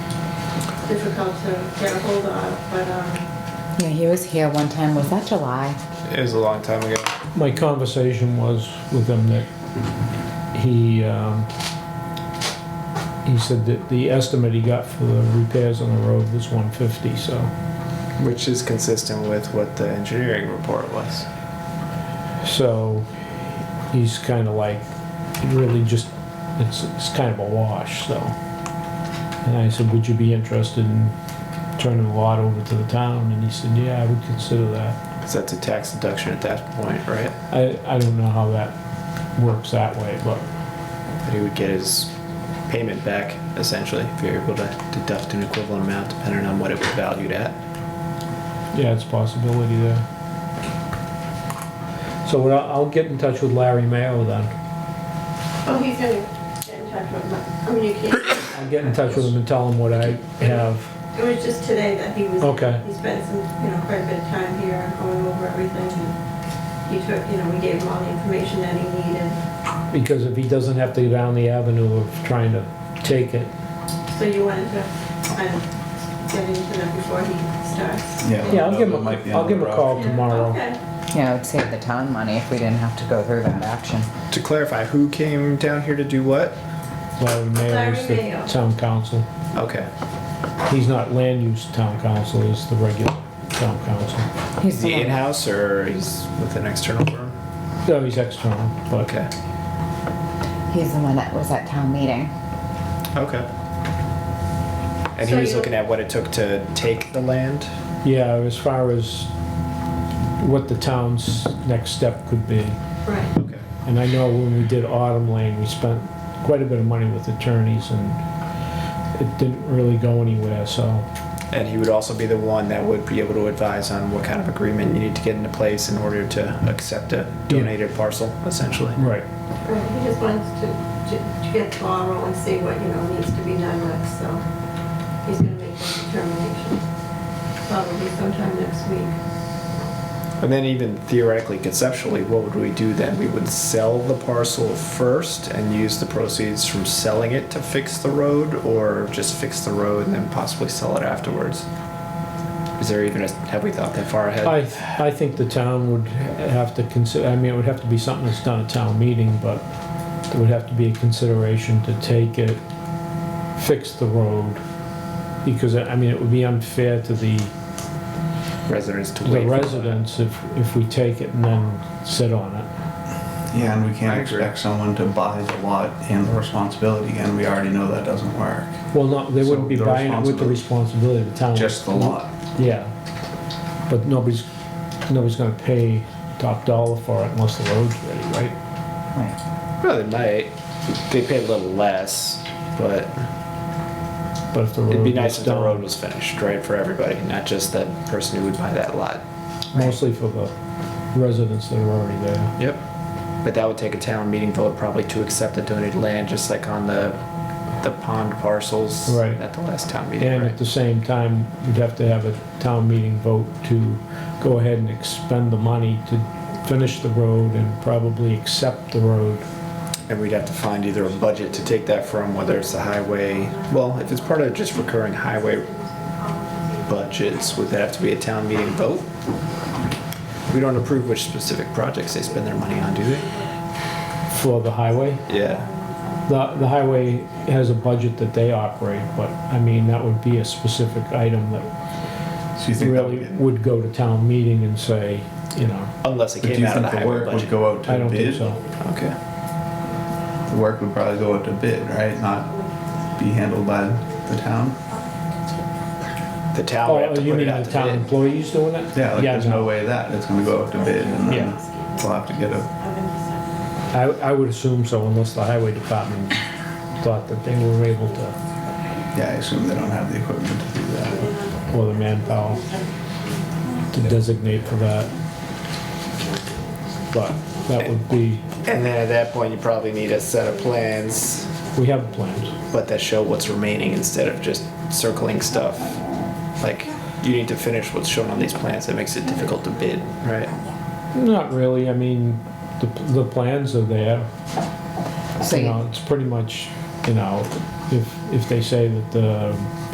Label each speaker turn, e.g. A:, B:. A: difficult to get a hold of, but, um,
B: Yeah, he was here one time. Was that July?
C: It was a long time ago.
D: My conversation was with him that he, um, he said that the estimate he got for the repairs on the road was one fifty, so.
C: Which is consistent with what the engineering report was.
D: So he's kind of like, it really just, it's, it's kind of a wash, so. And I said, would you be interested in turning the lot over to the town? And he said, yeah, I would consider that.
C: Because that's a tax deduction at that point, right?
D: I, I don't know how that works that way, but
C: But he would get his payment back, essentially, if you're able to deduct an equivalent amount depending on what it was valued at.
D: yeah, it's a possibility there. So what I'll, I'll get in touch with Larry Mayo then.
A: oh, he's gonna get in touch with, my- I mean, you can't,
D: I'll get in touch with him and tell him what I have.
A: it was just today that he was.
D: Okay.
A: He spent some, you know, quite a bit of time here going over everything, and he took, you know, we gave him all the information that he needed.
D: Because if he doesn't have to go down the avenue of trying to take it,
A: So you wanted to kind of get into that before he starts?
D: Yeah, I'll give him, a- I'll give him a call
A: Yeah,
D: Oh, tomorrow.
A: Okay.
B: Yeah, it would save the town money if we didn't have to go through that action.
C: To clarify, who came down here to do what?
D: Larry Mayo is
A: Larry Mayo.
D: the town council.
C: Okay.
D: He's not land use town council, he's the regular town council.
B: He's
C: Is he
B: the
C: in
B: one-
C: house or he's with an external firm?
D: No, he's external, but
C: Okay.
B: He's the one that was at town meeting.
C: Okay. And he
A: So
C: was
A: you-
C: looking at what it took to take the land?
D: yeah, as far as what the town's next step could be.
A: Right.
C: Okay.
D: And I know when we did Autumn Lane, we spent quite a bit of money with attorneys and it didn't really go anywhere, so.
C: And he would also be the one that would be able to advise on what kind of agreement you need to get into place in order to accept a donated parcel, essentially.
D: Right.
A: Right, he just wants to, to to get the ball rolling, see what, you know, needs to be done next, so he's gonna make that determination. Probably sometime next week.
C: And then even theoretically, conceptually, what would we do then? We would sell the parcel first and use the proceeds from selling it to fix the road, or just fix the road and then possibly sell it afterwards? Is there even a, have we thought that far ahead?
D: I, I think the town would have to consider, I mean, it would have to be something that's done at town meeting, but there would have to be a consideration to take it, fix the road, because, I mean, it would be unfair to the,
C: Residents to
D: the
C: wait. for that.
D: residents if, if we take it and then sit on it.
E: Yeah, and we
C: I
E: can't
C: agree.
E: expect someone to buy the lot and the responsibility, and we already know that doesn't work.
D: Well, not, they wouldn't be
E: So the
D: buying it with the responsibility of the town.
E: Just the lot.
D: Yeah, but nobody's, nobody's gonna pay top dollar for it unless the road's ready, right?
B: Right.
C: Well, they might. They paid a little less, but
D: But if the road
C: it'd be
D: was
C: nice if the
D: done-
C: road was finished, right, for everybody, not just that person who would buy that lot.
D: mostly for the residents that are already there.
C: Yep. But that would take a town meeting vote probably to accept the donated land, just like on the, the pond parcels.
D: Right.
C: At the last town meeting,
D: And at
C: right?
D: the same time, you'd have to have a town meeting vote to go ahead and expend the money to finish the road and probably accept the road.
C: And we'd have to find either a budget to take that from, whether it's the highway, well, if it's part of just recurring highway budgets, would that have to be a town meeting vote? We don't approve which specific projects they spend their money on, do they?
D: For the highway,
C: Yeah,
D: the, the highway has a budget that they operate, but I mean, that would be a specific item that
E: So you think that
D: really
E: would get-
D: would go to town meeting and say, you know,
C: unless it
E: but do
C: came
E: you
C: out of the
E: think the
C: highway
E: work would
C: budget.
E: go out
D: I
E: to
D: don't think
E: bid?
D: so.
C: Okay.
E: The work would probably go out to bid, right? Not be handled by the town?
C: The town would
D: Oh,
C: have to
D: you
C: put
D: mean
C: it
D: the
C: out
D: town
C: to bid.
D: employees doing it?
E: Yeah, like there's no
D: no.
E: way that it's gonna go out to bid, and then we'll have to get a,
D: I, I would assume so unless the highway department thought that they were able to,
E: yeah, I assume they don't have the equipment to do that.
D: or the manpower to designate for that. But that would be,
C: And then at that point, you probably need a set of plans
D: we have plans.
C: let that show what's remaining instead of just circling stuff. Like, you need to finish what's shown on these plans. That makes it difficult to bid, right?
D: Not really, I mean, the, the plans are there.
B: So
D: You
B: you-
D: know, it's pretty much, you know, if, if they say that the